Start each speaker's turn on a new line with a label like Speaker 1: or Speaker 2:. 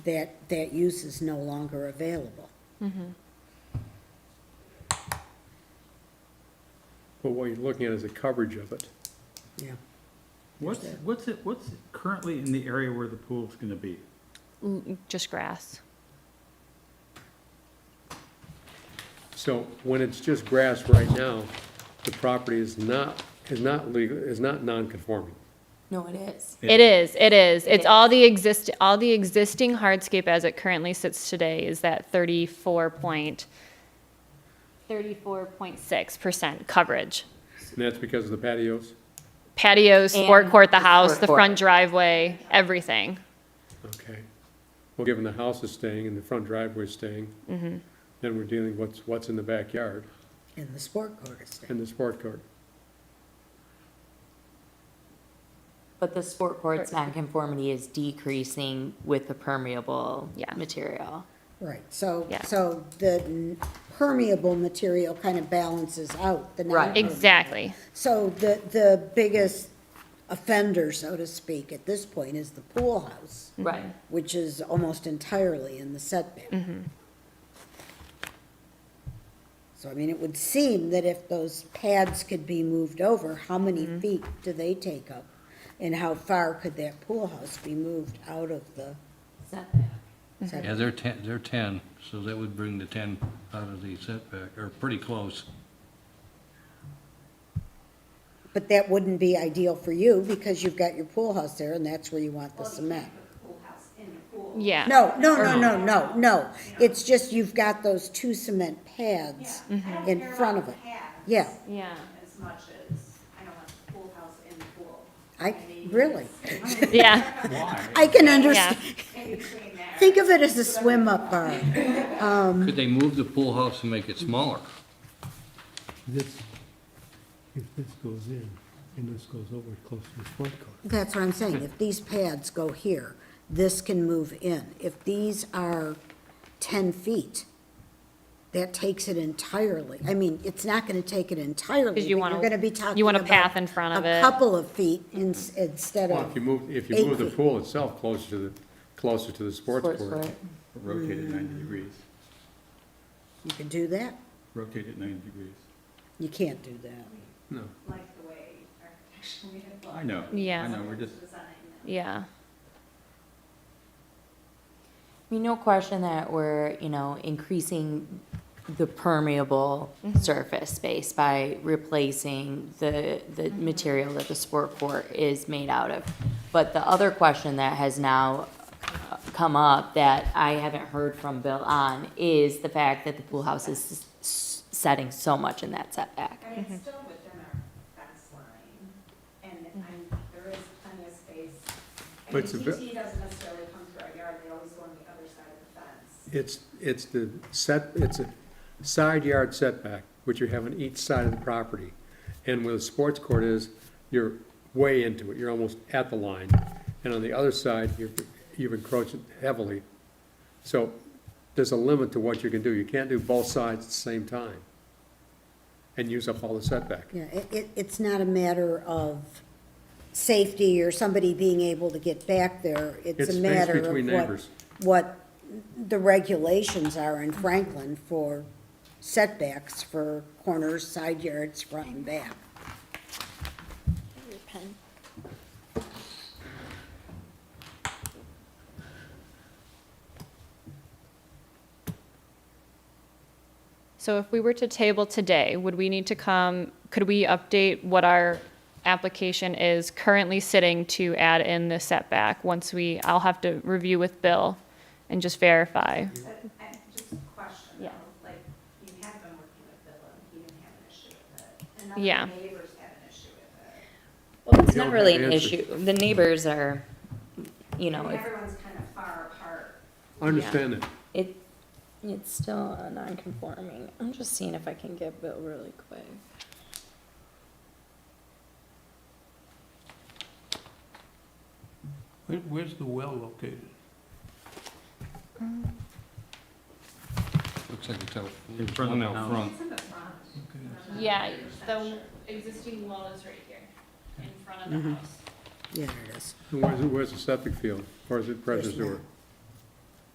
Speaker 1: that, that use is no longer available.
Speaker 2: But what you're looking at is the coverage of it.
Speaker 1: Yeah.
Speaker 3: What's, what's it, what's currently in the area where the pool's gonna be?
Speaker 4: L- Just grass.
Speaker 2: So when it's just grass right now, the property is not, is not legal, is not non-conforming.
Speaker 5: No, it is.
Speaker 3: Yeah.
Speaker 4: It is, it is.
Speaker 5: It
Speaker 4: It's all the exist, all the existing hardscape as it currently sits today is that thirty-four point, thirty-four point six percent coverage.
Speaker 2: And that's because of the patios?
Speaker 4: Patios,
Speaker 5: And
Speaker 4: forecourt, the
Speaker 5: the
Speaker 4: house, the
Speaker 5: forecourt.
Speaker 4: front driveway, everything.
Speaker 2: Okay. Well, given the house is staying and the front driveway's staying, then we're dealing what's, what's in the backyard
Speaker 1: In the sport court estate.
Speaker 2: and the sport court.
Speaker 5: But the sport court's nonconformity is decreasing with the permeable
Speaker 4: Yeah.
Speaker 5: material.
Speaker 1: Right, so,
Speaker 4: Yeah.
Speaker 1: so the n- permeable material kind of balances out the
Speaker 5: Right.
Speaker 1: non-permeable.
Speaker 4: Exactly.
Speaker 1: So the, the biggest offender, so to speak, at this point is the pool house,
Speaker 4: Mm-hmm.
Speaker 5: Right.
Speaker 1: which is almost entirely in the setback. So I mean, it would seem that if those pads could be moved over, how many feet do they take up? And how far could that pool house be moved out of the
Speaker 5: Setback.
Speaker 1: setback?
Speaker 6: Yeah, they're ten, they're ten, so that would bring the ten out of the setback, or pretty close.
Speaker 1: But that wouldn't be ideal for you because you've got your pool house there and that's where you want the cement.
Speaker 4: Yeah.
Speaker 1: No, no, no, no, no, no. It's just you've got those two cement pads in front of it. Yeah,
Speaker 4: Yeah.
Speaker 7: as much as, I don't want the pool house in the pool,
Speaker 1: I, really.
Speaker 4: Yeah.
Speaker 1: I can understand.
Speaker 7: in between there.
Speaker 1: Think of it as a swim up bar.
Speaker 6: Could they move the pool house and make it smaller?
Speaker 8: This, if this goes in, and this goes over close to the front court,
Speaker 1: That's what I'm saying. If these pads go here, this can move in. If these are ten feet, that takes it entirely. I mean, it's not gonna take it entirely, but
Speaker 4: 'Cause you
Speaker 1: you're
Speaker 4: wanna-
Speaker 1: gonna be talking
Speaker 4: you want a
Speaker 1: about
Speaker 4: path in front of
Speaker 1: A
Speaker 4: it.
Speaker 1: couple of feet in- instead
Speaker 2: Well, if you
Speaker 1: of,
Speaker 2: move, if
Speaker 1: Eight
Speaker 2: you move the
Speaker 1: feet.
Speaker 2: pool itself closer to the, closer to the sports
Speaker 5: Sports
Speaker 2: court.
Speaker 5: court.
Speaker 3: Rotate it ninety degrees,
Speaker 1: you can do that.
Speaker 3: rotate it ninety degrees.
Speaker 1: You can't do that.
Speaker 2: No.
Speaker 7: Like the way architecturally it
Speaker 3: I
Speaker 7: looks,
Speaker 3: know,
Speaker 4: Yeah.
Speaker 3: I know, we're just,
Speaker 7: design.
Speaker 4: Yeah.
Speaker 5: I mean, no question that we're, you know, increasing the permeable
Speaker 4: Mm-hmm.
Speaker 5: surface space by replacing the, the
Speaker 4: Mm-hmm.
Speaker 5: material that the sport court is made out of. But the other question that has now uh, come up that I haven't heard from Bill on is the fact that the pool house is s- s- setting so much in that setback.
Speaker 7: I mean,
Speaker 4: Mm-hmm.
Speaker 7: it's still within our fence line, and I'm, there is plenty of space. I
Speaker 2: But
Speaker 7: mean,
Speaker 2: it's a ve-
Speaker 7: DT doesn't necessarily come through our yard, they always go on the other side of the
Speaker 2: It's,
Speaker 7: fence.
Speaker 2: it's the set, it's a side yard setback, which you have on each side of the property. And where the sports court is, you're way into it, you're almost at the line. And on the other side, you're, you've encroached heavily. So there's a limit to what you can do. You can't do both sides at the same time and use up all the setback.
Speaker 1: Yeah, it, it, it's not a matter of safety or somebody being able to get back there. It's
Speaker 2: It's
Speaker 1: a
Speaker 2: space
Speaker 1: matter of
Speaker 2: between
Speaker 1: what,
Speaker 2: neighbors.
Speaker 1: what the regulations are in Franklin for setbacks for corners, side yards, front and back.
Speaker 4: So if we were to table today, would we need to come, could we update what our application is currently sitting to add in the setback? Once we, I'll have to review with Bill and just verify.
Speaker 7: But, I, just a question
Speaker 4: Yeah.
Speaker 7: though, like, you have been working with Bill, and he didn't have an issue with it, and
Speaker 4: Yeah.
Speaker 7: now the neighbors have an issue with it.
Speaker 5: Well, it's
Speaker 2: We don't
Speaker 5: not really
Speaker 2: have
Speaker 5: an
Speaker 2: answers.
Speaker 5: issue. The neighbors are, you
Speaker 7: I
Speaker 5: know,
Speaker 7: mean,
Speaker 5: if
Speaker 7: everyone's kind of far apart.
Speaker 2: I understand that.
Speaker 5: It, it's still a non-conforming. I'm just seeing if I can get Bill really quick.
Speaker 8: Where, where's the well located?
Speaker 6: Looks like it's out,
Speaker 3: In front of the
Speaker 6: one out
Speaker 3: house.
Speaker 6: front.
Speaker 7: It's in the front. I'm not
Speaker 4: Yeah,
Speaker 7: 100%
Speaker 4: the
Speaker 7: sure.
Speaker 4: existing wall is right here, in front of the house.
Speaker 1: Yeah, there it is.
Speaker 2: Where's, where's the septic field? Or is it pressure
Speaker 1: There's not.
Speaker 2: sewer?